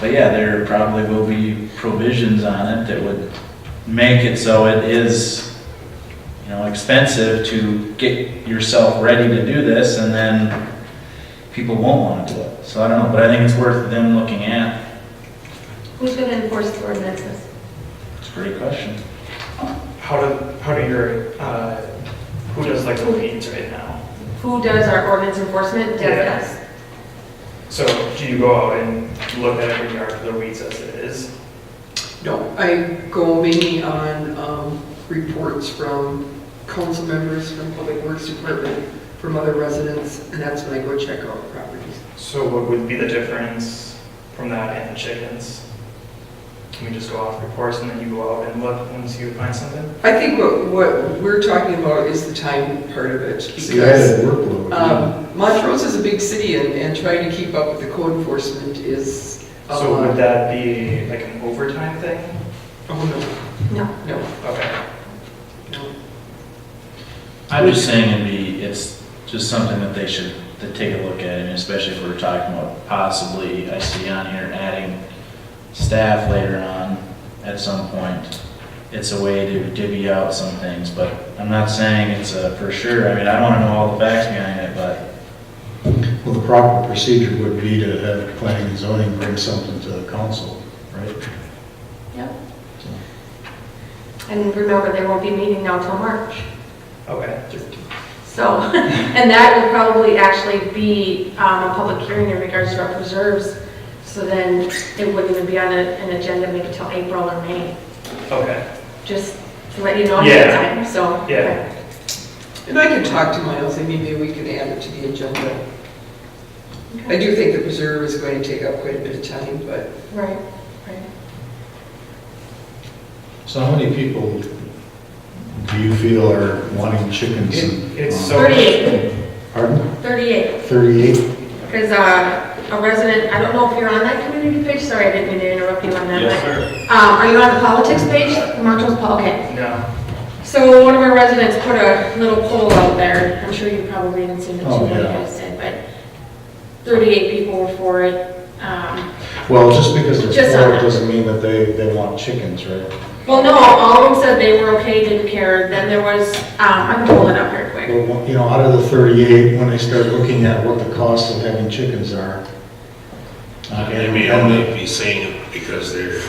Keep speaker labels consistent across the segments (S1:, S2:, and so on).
S1: But yeah, there probably will be provisions on it that would make it so it is, you know, expensive to get yourself ready to do this, and then people won't want to do it. So I don't know, but I think it's worth them looking at.
S2: Who's going to enforce the ordinances?
S1: It's a great question.
S3: How do, how do your, uh, who does like the weeds right now?
S2: Who does our ordinance enforcement?
S3: Yeah.
S2: Does us.
S3: So do you go out and look at every yard for the weeds as it is?
S4: No, I go mainly on um, reports from council members, from Public Works Department, from other residents, and that's when I go check out properties.
S3: So what would be the difference from that and the chickens? Can we just go off reports and then you go out and look once you find something?
S4: I think what, what we're talking about is the time part of it,
S5: See, I had
S4: because
S5: a workload.
S2: Uh,
S4: um, Montrose is a big city, and, and trying to keep up with the code enforcement is a
S3: So would
S4: lot.
S3: that be like an overtime thing?
S4: Oh,
S2: No.
S4: no, no,
S3: Okay,
S4: no.
S1: I'm just saying it'd be, it's just something that they should, to take a look at, and especially if we're talking about possibly, I see on here, adding staff later on at some point. It's a way to divvy out some things, but I'm not saying it's a for sure. I mean, I want to know all the facts behind it, but
S5: Well, the proper procedure would be to have planning and zoning bring something to the council, right?
S2: Yep. And remember, they won't be meeting now till March.
S3: okay.
S2: So, and that will probably actually be um, a public hearing in regards to our preserves. So then it wouldn't even be on a- an agenda maybe till April or May,
S3: Okay,
S2: just to let you know ahead of
S3: Yeah.
S2: time, so.
S3: yeah.
S4: And I can talk to Miles, and maybe we could add it to the agenda. I do think the preserve is going to take up quite a bit of time, but
S2: Right, right.
S5: So how many people do you feel are wanting chickens? um,
S3: It- It's so.
S2: Thirty-eight,
S5: Pardon?
S2: thirty-eight.
S5: Thirty-eight?
S2: Because uh, a resident, I don't know if you're on that community page, sorry, I didn't mean to interrupt you on that.
S3: Yes,
S2: but, Um, are you on the politics page, Montrose Pol, okay.
S3: No,
S2: So one of our residents put a little poll out there, I'm sure you probably haven't seen it too,
S5: Oh,
S2: like
S5: yeah.
S2: I said, but thirty-eight people were for it. Um,
S5: Well, just because there's
S2: Just
S5: four
S2: on-
S5: doesn't mean that they, they want chickens, right?
S2: Well, no, all of them said they were okay, didn't care, then there was, um, I can pull it up here quick.
S5: Well, you know, out of the thirty-eight, when they start looking at what the cost of having chickens are.
S6: And they may only be saying it because they're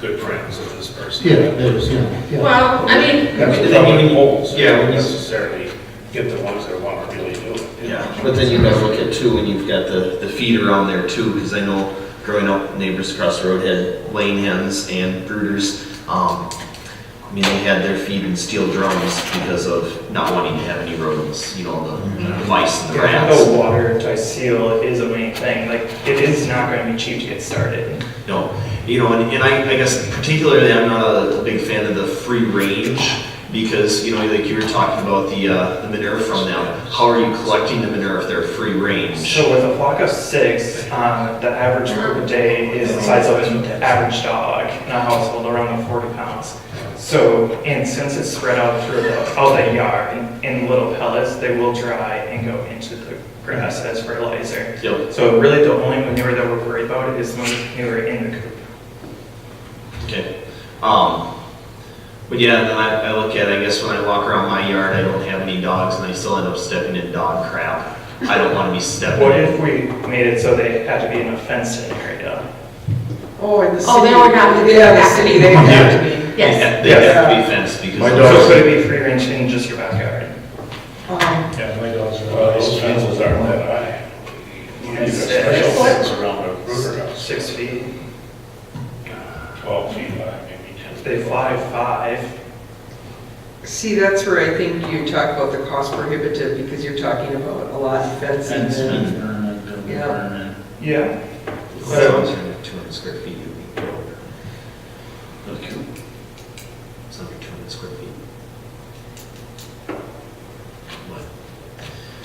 S6: good friends with this person.
S5: Yeah, there's, you know, yeah.
S2: Well, I mean,
S6: They're
S5: That's probably-
S6: getting holes,
S7: Yeah,
S6: yeah,
S7: when you-
S6: necessarily get the ones that want to really do it.
S7: Yeah, but then you gotta look at too, when you've got the, the feed around there too, because I know growing up, neighbors across the road had laying hens and brooders. Um, I mean, they had their feed in steel drums because of not wanting to have any rodents, you know, the mice and the
S3: yeah,
S7: rats.
S3: the water to seal is a main thing, like, it is not gonna be cheap to get started.
S7: No, you know, and, and I, I guess particularly I'm not a, a big fan of the free range because, you know, like you were talking about the, uh, the manure from them. How are you collecting the manure if they're free range?
S3: So with a flock of six, um, the average group a day is the size of an average dog in a household, around 40 pounds. So, and since it's spread out through the, all the yard in- in little pellets, they will dry and go into the grass as fertilizer.
S7: Yep,
S3: So really the only manure that we're worried about is manure in the coop.
S7: okay. Um, but yeah, then I, I look at, I guess when I walk around my yard, I don't have any dogs and I still end up stepping in dog crap. I don't want to be stepping.
S3: What if we made it so they had to be in a fenced area?
S4: Oh, in the city.
S2: Oh, they would have to be
S4: Yeah, the
S2: back.
S4: city, they would have to be.
S7: They
S2: yes.
S7: have they have to be fenced because.
S5: My
S7: of-
S5: dog-
S3: So could it be free range in just your backyard?
S4: Um,
S5: Yeah, my dogs are.
S6: Well, those fences aren't that high. You need a special fence around a brooder house,
S3: Six feet,
S6: twelve feet high, maybe ten.
S3: they fly five.
S4: See, that's where I think you talk about the cost prohibitive, because you're talking about a lot of fencing
S1: fence, fence,
S4: and,
S1: permit, building
S4: Yeah.
S1: permit.
S3: Yeah.
S7: So, two hundred square feet would be over. Okay. It's under two hundred square feet. What?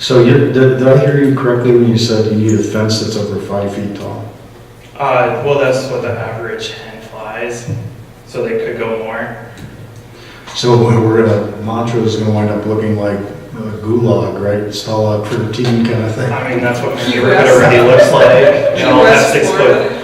S5: So you, did did I hear you correctly when you said you need a fence that's over five feet tall?
S3: Uh, well, that's what the average hen flies, so they could go more.
S5: So we're gonna, Montrose is gonna wind up looking like a gulag, right? It's all a pretty team kind of thing.
S3: I mean, that's what my
S4: US.
S3: neighborhood already looks like. And all that
S4: US
S3: six
S4: or-
S3: foot